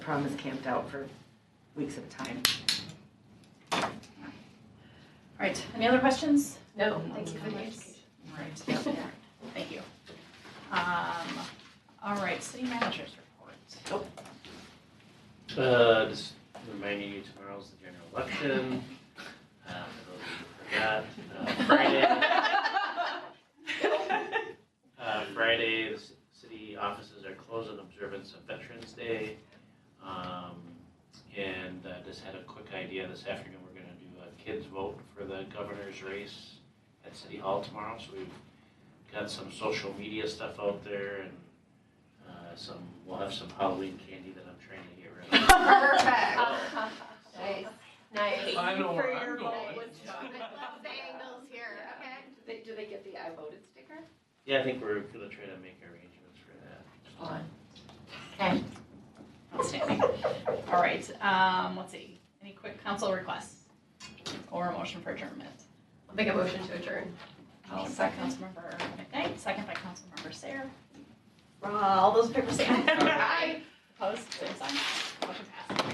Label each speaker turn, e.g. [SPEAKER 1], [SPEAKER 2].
[SPEAKER 1] prom is camped out for weeks at a time.
[SPEAKER 2] All right, any other questions?
[SPEAKER 3] No,
[SPEAKER 2] Thank you for the
[SPEAKER 3] education.
[SPEAKER 2] education. All right, yeah, yeah. thank you. Um, all right, city managers report.
[SPEAKER 4] Uh, just reminding you, tomorrow's the general election. Uh, for those who forgot, uh, Friday, uh, Friday, the c- city offices are closed in observance of Veterans Day. Um, and uh, just had a quick idea this afternoon, we're gonna do a kids vote for the governor's race at City Hall tomorrow, so we've got some social media stuff out there and, uh, some, we'll have some Halloween candy that I'm trying to get rid of.
[SPEAKER 3] Nice, nice.
[SPEAKER 5] I know where I'm
[SPEAKER 3] vote.
[SPEAKER 5] going.
[SPEAKER 3] The angles here, okay? Do they, do they get the I voted sticker?
[SPEAKER 4] Yeah, I think we're gonna try to make arrangements for that.
[SPEAKER 3] Fun.
[SPEAKER 2] Outstanding. All right, um, let's see, any quick council requests or a motion for adjournment?
[SPEAKER 3] I'll make a motion to adjourn.
[SPEAKER 2] Motion by Councilmember McKnight, second by Councilmember Sayer. Uh, All those in favor say aye. Opposed, same sign. Motion passed.